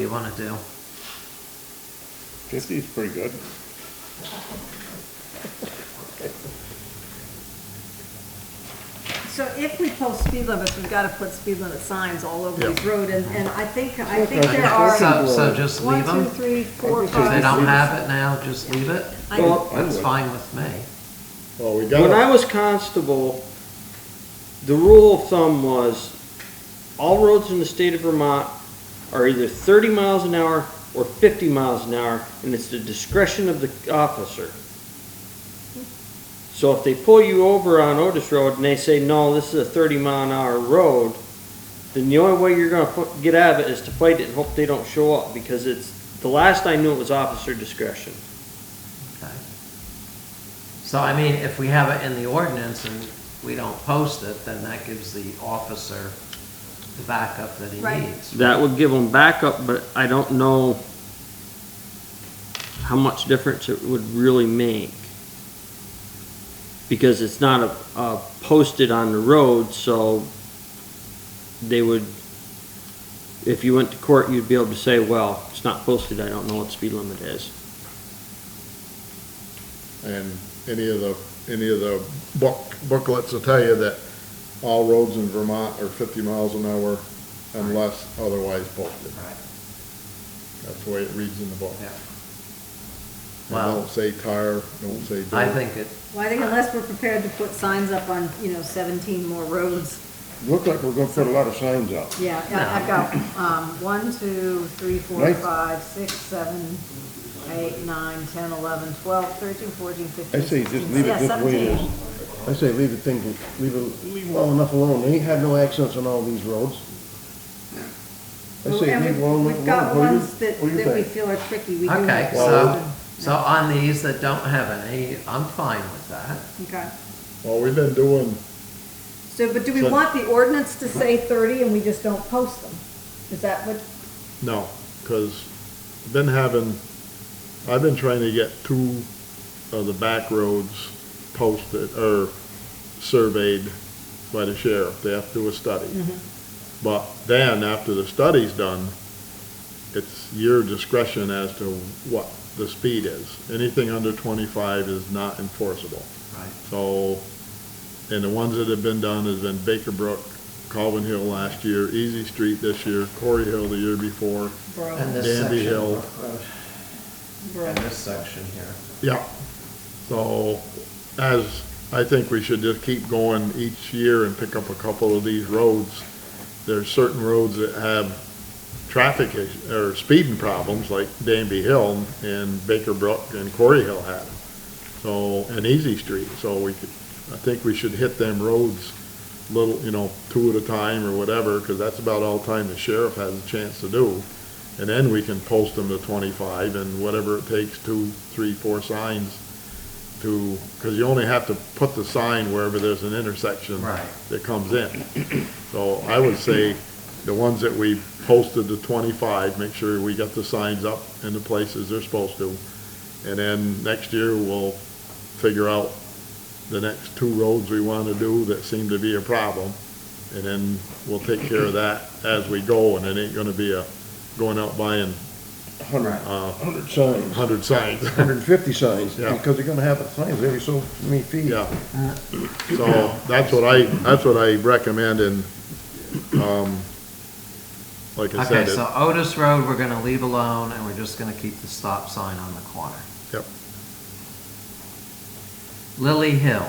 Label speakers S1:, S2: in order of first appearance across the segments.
S1: you wanna do.
S2: Fifty is pretty good.
S3: So if we post speed limits, we've got to put speed limit signs all over
S2: Yeah.
S3: these roads, and, and I think, I think
S2: Okay.
S3: there are
S1: So, so just
S3: one,
S1: leave
S3: two,
S1: them?
S3: three, four,
S2: I think
S1: If they
S3: five.
S1: don't
S2: Leave it.
S1: have it now, just leave it?
S3: I-
S4: Well,
S2: I
S1: That's
S2: would.
S1: fine with me.
S2: Well, we
S4: When I
S2: got,
S4: was constable, the rule of thumb was all roads in the state of Vermont are either thirty miles an hour or fifty miles an hour, and it's the discretion of the officer. So if they pull you over on Otis Road and they say, no, this is a thirty mile an hour road, then the only way you're gonna fu- get out of it is to fight it and hope they don't show up, because it's, the last I knew it was officer discretion.
S1: Okay. So I mean, if we have it in the ordinance and we don't post it, then that gives the officer the backup that he
S3: Right.
S1: needs.
S4: That would give them backup, but I don't know how much difference it would really make. Because it's not a, a posted on the road, so they would, if you went to court, you'd be able to say, well, it's not posted, I don't know what speed limit is.
S2: and any of the, any of the book, booklets will tell you that all roads in Vermont are fifty miles an hour unless otherwise posted.
S1: Right,
S2: That's the way it reads in the book.
S1: yeah.
S2: It
S1: Well,
S2: Don't say tire, don't say.
S1: I
S2: dirt.
S1: think it,
S3: Well, I think unless we're prepared to put signs up on, you know, seventeen more roads,
S2: Look like we're gonna put a lot of signs up.
S3: yeah, I- I've got, um, one, two, three, four,
S2: Right.
S3: five, six, seven, eight, nine, ten, eleven, twelve, thirteen, fourteen,
S5: I
S3: fifteen,
S5: say
S3: sixteen.
S5: just leave it this way it
S3: Yeah,
S5: is.
S3: seventeen.
S5: I say leave the thing, leave it, leave them well enough alone. They have no accidents on all these roads. I
S3: Well,
S5: say
S3: and
S5: leave
S3: we-
S5: them alone.
S3: We've
S5: What
S3: got
S5: do you-
S3: ones that,
S5: what do you
S3: that we
S5: think?
S3: feel are tricky, we do.
S1: okay,
S3: have
S1: so,
S3: some.
S1: so on these that don't have any, I'm fine with that.
S3: Okay.
S2: Well, we've been doing,
S3: So, but do we
S2: So-
S3: want the ordinance to say thirty and we just don't post them? Is that what,
S2: no, cause I've been having, I've been trying to get two of the back roads posted, or surveyed by the sheriff. They have to do a study. But then, after the study's done, it's your discretion as to what the speed is. Anything under twenty-five is not enforceable.
S1: Right.
S2: So, and the ones that have been done has been Baker Brook, Calvin Hill last year, Easy Street this year, Corey Hill the year before.
S1: And
S3: bro,
S1: this section,
S2: Dandy Hill.
S1: Brook Road,
S3: bro?
S1: and this section here.
S2: Yeah. So, as, I think we should just keep going each year and pick up a couple of these roads. There's certain roads that have traffic is- or speeding problems, like Danby Hill and Baker Brook and Quarry Hill had. 'em. So, and Easy Street, so we could, I think we should hit them roads little, you know, two at a time or whatever, because that's about all time the sheriff has a chance to do. And then we can post them to twenty-five and whatever it takes, two, three, four signs to, because you only have to put the sign wherever there's an intersection.
S1: Right.
S2: That comes in. So I would say the ones that we posted to twenty-five, make sure we got the signs up in the places they're supposed to. And then next year, we'll figure out the next two roads we want to do that seem to be a problem. And then we'll take care of that as we go, and it ain't gonna be a, going out buying
S5: Hundred,
S2: Uh,
S5: hundred signs,
S2: hundred signs.
S5: hundred and fifty signs,
S2: Yeah.
S5: because they're gonna have signs every so many feet.
S2: Yeah. So that's what I, that's what I recommend and, um, like I
S1: Okay,
S2: said, it-
S1: so Otis Road, we're gonna leave alone, and we're just gonna keep the stop sign on the corner.
S2: Yep.
S1: Lily Hill,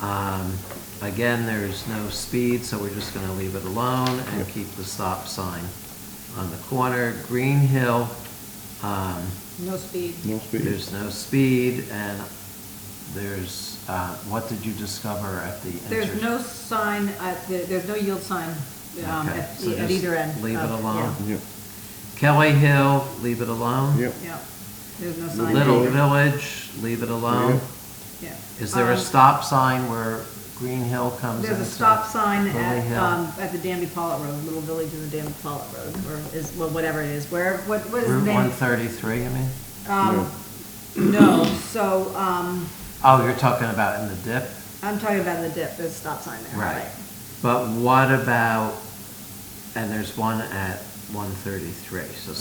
S1: um, again, there's no speed, so we're just gonna leave it alone and keep the stop sign on the corner. Green Hill, um,
S3: No speed.
S5: No speed.
S1: there's no speed, and there's, uh, what did you discover at the intersection?
S3: There's no sign, at the- there's no yield sign um,
S1: Okay,
S3: at
S1: so
S3: the- at
S1: just
S3: either end.
S1: leave it
S3: of-
S1: alone.
S5: Yeah,
S1: Kelly Hill, leave it alone.
S5: yeah.
S3: Yeah, yeah. there's no sign.
S1: Little
S5: Hill.
S1: Village, leave it alone.
S3: Yeah.
S1: Is there a
S3: Um,
S1: stop sign where Green Hill comes in?
S3: There's a stop sign
S1: Lily
S3: at,
S1: Hill.
S3: um, at the Danby Pollitt Road, Little Village in the Danby Pollitt Road, or is, well, whatever it is, where, what, what is the
S1: Route one
S3: name?
S1: thirty-three, I mean?
S3: Um, no, so, um,
S1: Oh, you're talking about in the dip?
S3: I'm talking about the dip, there's a stop sign there.
S1: Right. But what about, and there's one at one thirty-three, so